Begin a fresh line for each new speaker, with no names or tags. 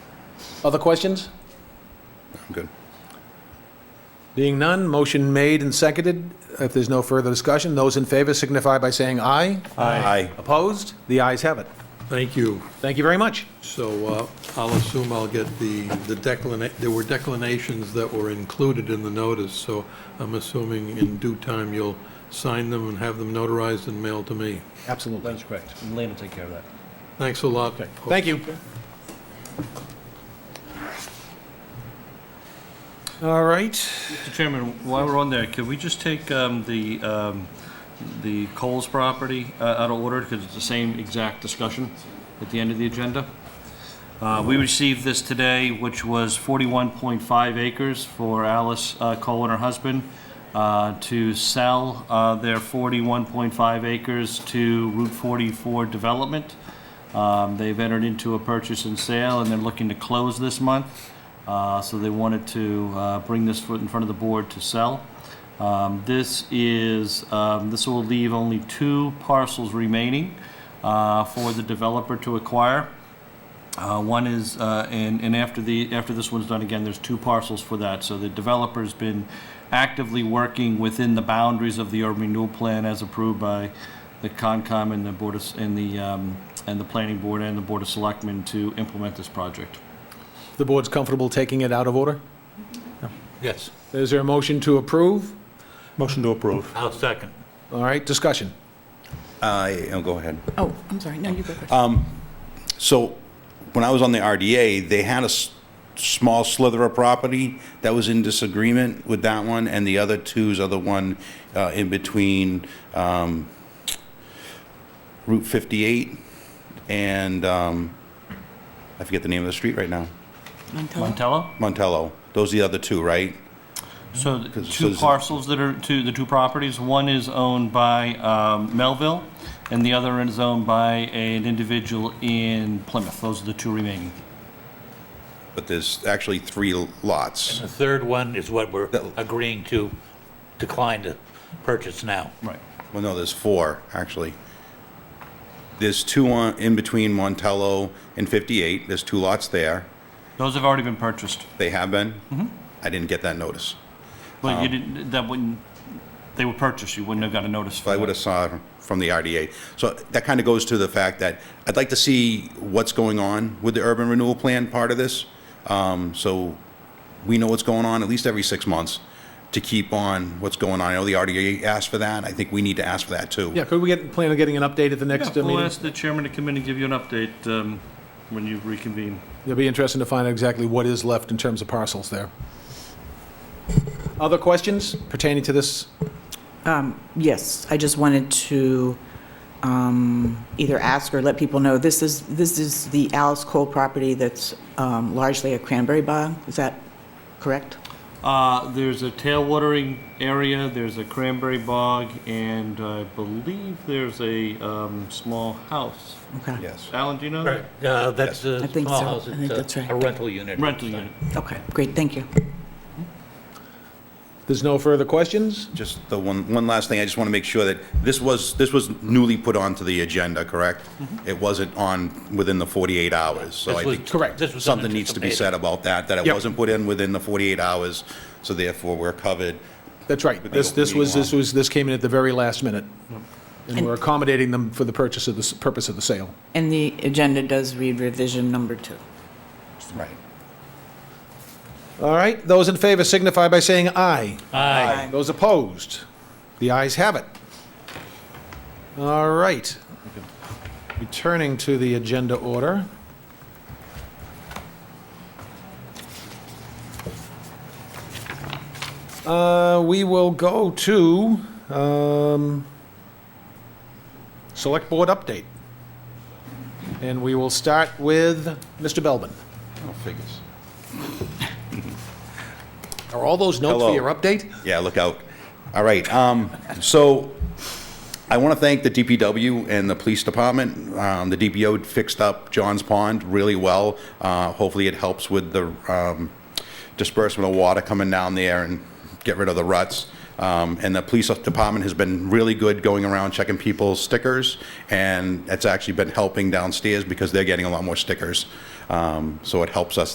Other questions?
I'm good.
Being none, motion made and seconded. If there's no further discussion, those in favor signify by saying aye.
Aye.
Opposed? The ayes have it.
Thank you.
Thank you very much.
So uh, I'll assume I'll get the, the declina, there were declinations that were included in the notice, so I'm assuming in due time you'll sign them and have them notarized and mailed to me.
Absolutely.
That's correct. And Lane will take care of that.
Thanks a lot.
Thank you. All right.
Mr. Chairman, while we're on there, could we just take um, the, um, the Coles property uh, out of order, because it's the same exact discussion at the end of the agenda? Uh, We received this today, which was 41.5 acres for Alice uh, Cole and her husband uh, to sell uh, their 41.5 acres to Route 44 Development. Um, They've entered into a purchase and sale, and they're looking to close this month. Uh, So they wanted to uh, bring this foot in front of the board to sell. Um, This is, um, this will leave only two parcels remaining uh, for the developer to acquire. Uh, One is, uh, and, and after the, after this one's done again, there's two parcels for that. So the developer's been actively working within the boundaries of the urban renewal plan as approved by the Concom and the Board of, S- and the, um, and the Planning Board and the Board of Selectmen to implement this project.
The board's comfortable taking it out of order?
Yes.
Is there a motion to approve?
Motion to approve. I'll second.
All right, discussion.
I, oh, go ahead.
Oh, I'm sorry. No, you go first.
So when I was on the RDA, they had a s- small slither of property that was in disagreement with that one, and the other two's are the one uh, in between um, Route 58 and, um, I forget the name of the street right now,
Montello.
Montello?
Montello. Those are the other two, right?
So the
'Cause Mm-hmm. it says
two
it-
parcels that are, two, the two properties, one is owned by um, Melville, and the other is owned by an individual in Plymouth. Those are the two remaining.
But there's actually three lots.
The third one is what we're
That-
agreeing to decline to purchase now.
Right.
Well, no, there's four, actually. There's two on, in between Montello and 58. There's two lots there.
Those have already been purchased.
They have been?
Mm-hmm.
I didn't get that notice.
But you didn't, that wouldn't, they were purchased, you wouldn't have got a notice
But I
for
would have
that.
saw it from the RDA. So that kind of goes to the fact that I'd like to see what's going on with the urban renewal plan part of this. Um, So we know what's going on at least every six months to keep on what's going on. I know the RDA asked for that. I think we need to ask for that too.
Yeah, could we get, plan on getting an update at the next uh,
Yeah, We'll
meeting?
ask the chairman to come in and give you an update um, when you reconvene.
It'll be interesting to find out exactly what is left in terms of parcels there. Other questions pertaining to this?
Yes, I just wanted to um, either ask or let people know, this is, this is the Alice Cole property that's um, largely a cranberry bog. Is that correct?
Uh, There's a tail watering area, there's a cranberry bog, and I believe there's a um, small house.
Okay.
Yes.
Alan, do you know?
Right. Uh, That's
I
a
think
small
so.
house.
I think
It's a-
that's right.
A rental unit.
Rental unit.
Okay, great, thank you.
There's no further questions?
Just the one, one last thing, I just want to make sure that this was, this was newly put onto the agenda, correct? It wasn't on within the 48 hours, so I
This was-
think
correct.
this was
something needs to be said
unanticipated.
about that, that it
Yep.
wasn't put in within the 48 hours, so therefore we're covered.
That's right. This, this was, this was, this came in at the very last minute. And we're accommodating them for the purchase of the, s- purpose of the sale.
And the agenda does read revision number two.
Right.
All right, those in favor signify by saying aye.
Aye.
Aye.
Those opposed? The ayes have it. All right. Returning to the agenda order. Uh, We will go to um, Select Board update. And we will start with Mr. Belbin.
Oh, Figures.
Are all those notes for
Hello.
your update?
Yeah, look out. All right, um, so I want to thank the DPW and the police department. Um, the DPO fixed up John's Pond really well. Uh, hopefully it helps with the, um, disbursement of water coming down there and get rid of the ruts. Um, and the police department has been really good going around checking people's stickers, and it's actually been helping downstairs because they're getting a lot more stickers. Um, so it helps us